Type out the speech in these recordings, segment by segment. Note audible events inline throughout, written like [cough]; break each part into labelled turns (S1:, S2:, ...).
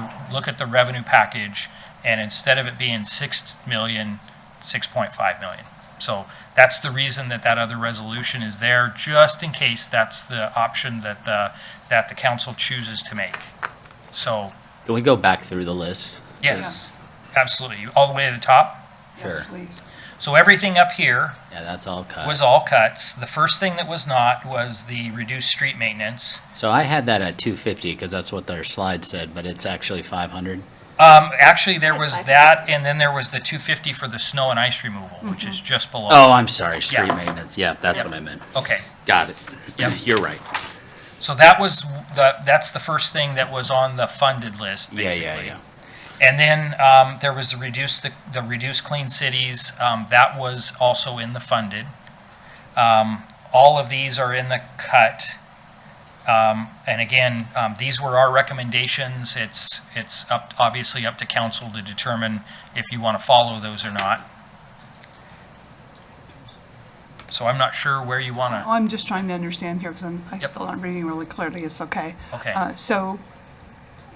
S1: the, look at the revenue package, and instead of it being six million, six point five million. So that's the reason that that other resolution is there, just in case that's the option that the, that the council chooses to make. So,
S2: Can we go back through the list?
S1: yes, absolutely, all the way to the top.
S2: Sure.
S3: Yes, please.
S1: So everything up here
S2: Yeah, that's all cut.
S1: was all cuts. The first thing that was not was the reduced street maintenance.
S2: so I had that at 250 because that's what their slide said, but it's actually 500.
S1: Um, actually, there was
S4: Five.
S1: that, and then there was the two fifty for the snow and ice removal, which is just below.
S2: Oh, I'm sorry, street
S1: Yeah.
S2: maintenance. Yeah, that's what I meant.
S1: Okay,
S2: Got it.
S1: Yep.
S2: [laughs] you're right.
S1: so that was the, that's the first thing that was on the funded list,
S2: Yeah,
S1: basically.
S2: yeah, yeah.
S1: And then, um, there was the reduce, the, the reduce clean cities, um, that was also in the funded. Um, all of these are in the cut. Um, and again, um, these were our recommendations. It's, it's up, obviously up to council to determine if you want to follow those or not. So I'm not sure where you want
S3: Oh,
S1: to,
S3: I'm just trying to understand here because I'm, I
S1: Yep.
S3: still aren't reading really clearly. It's okay.
S1: Okay.
S3: Uh, So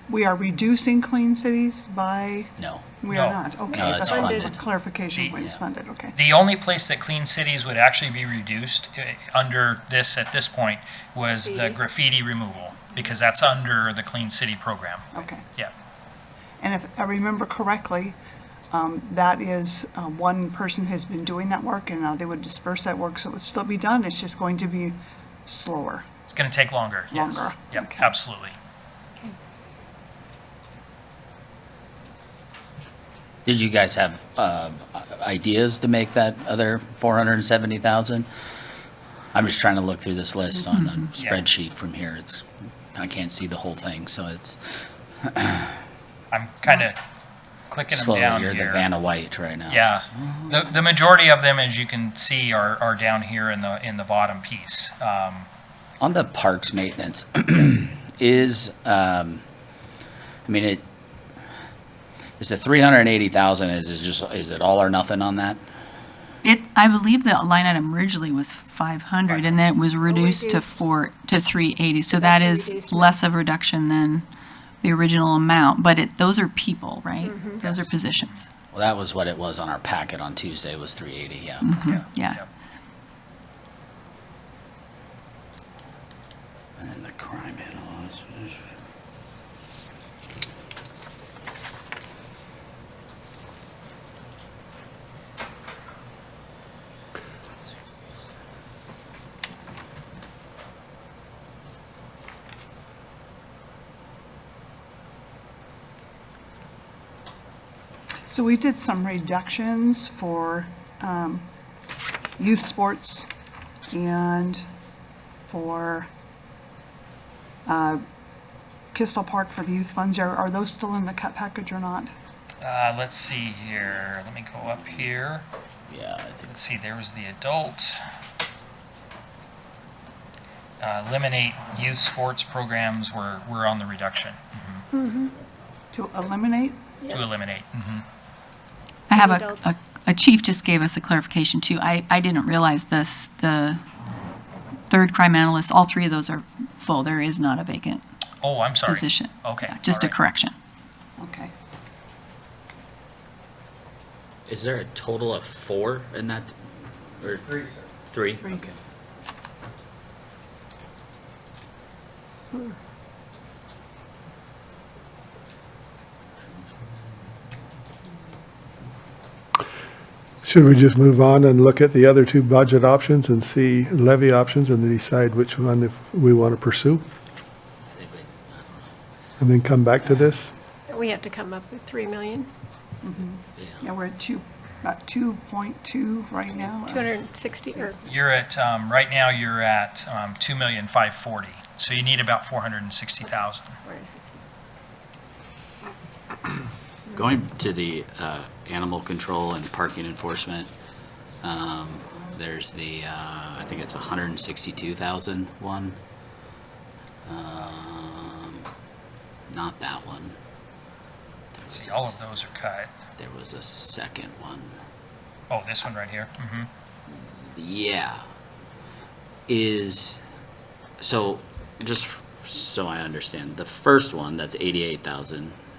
S3: we are reducing clean cities by,
S2: No.
S3: we are
S1: No.
S3: not. Okay,
S2: No, it's
S3: that's what
S2: funded.
S3: clarification, when it's
S2: Yeah.
S3: funded, okay.
S1: the only place that Clean Cities would actually be reduced eh, under this at this point was the
S4: Graffiti.
S1: graffiti removal, because that's under the Clean City program.
S3: Okay.
S1: Yeah,
S3: And if I remember correctly, um, that is, uh, one person has been doing that work and now they would disperse that work, so it would still be done. It's just going to be slower.
S1: it's going to take longer, yes.
S3: Longer,
S1: Yep,
S3: okay.
S1: absolutely.
S2: Did you guys have uh, ideas to make that other 470,000? I'm just trying to look through this list on a spreadsheet from here. It's I can't see the whole thing, so it's
S1: I'm kind of clicking them
S2: slowly.
S1: down
S2: You're the
S1: here.
S2: Vanna White right now.
S1: Yeah, the, the majority of them, as you can see, are, are down here in the, in the bottom piece. Um,
S2: On the parks maintenance, [clears throat] is, um, I mean, it, is the three hundred and eighty thousand, is it just, is it all or nothing on that?
S5: It, I believe the line item originally was 500, and then it was reduced to
S4: reduced.
S5: four, to 380. So that is
S4: reduced.
S5: less of a reduction than the original amount, but it, those are people, right? Those are positions,
S2: Well, that was what it was on our packet on Tuesday, was three eighty, yeah.
S1: Mm-hmm.
S3: Hmm.
S5: yeah.
S2: And then the crime analysis.
S3: So we did some reductions for um, youth sports and for uh, Kistel Park for the youth funds. Are are those still in the cut package or not?
S1: Uh, let's see here, let me go up here.
S2: Yeah, I think,
S1: Let's see, there was the adult. Uh, Eliminate youth sports programs were, were on the reduction
S3: To eliminate?
S1: to eliminate.
S5: I have a,
S4: Adults.
S5: a, a chief just gave us a clarification too. I, I didn't realize this, the third crime analyst, all three of those are full. There is not a vacant
S1: Oh, I'm sorry.
S5: position.
S1: Okay,
S5: Yeah, Just
S1: all
S5: a
S1: right.
S5: correction.
S3: Okay.
S2: is there a total of four in that, or? Three, sir. Three?
S3: Three.
S2: Okay.
S6: Should we just move on and look at the other two budget options and see levy options and then decide which one if we want to pursue? And then come back to this?
S4: We have to come up with 3 million,
S3: Yeah, we're at two, about 2.2 right now.
S4: 260, or,
S1: You're at, um, right now, you're at, um, two million five forty, so you need about four hundred and sixty thousand.
S4: or 60.
S2: Going to the uh, animal control and parking enforcement, um, there's the, uh, I think it's 162,000 one. Um, Not that one.
S1: See, all of those are cut.
S2: There was a second one.
S1: Oh, this one right here. hmm
S2: Yeah. Is, so, just so I understand, the first one, that's 88,000,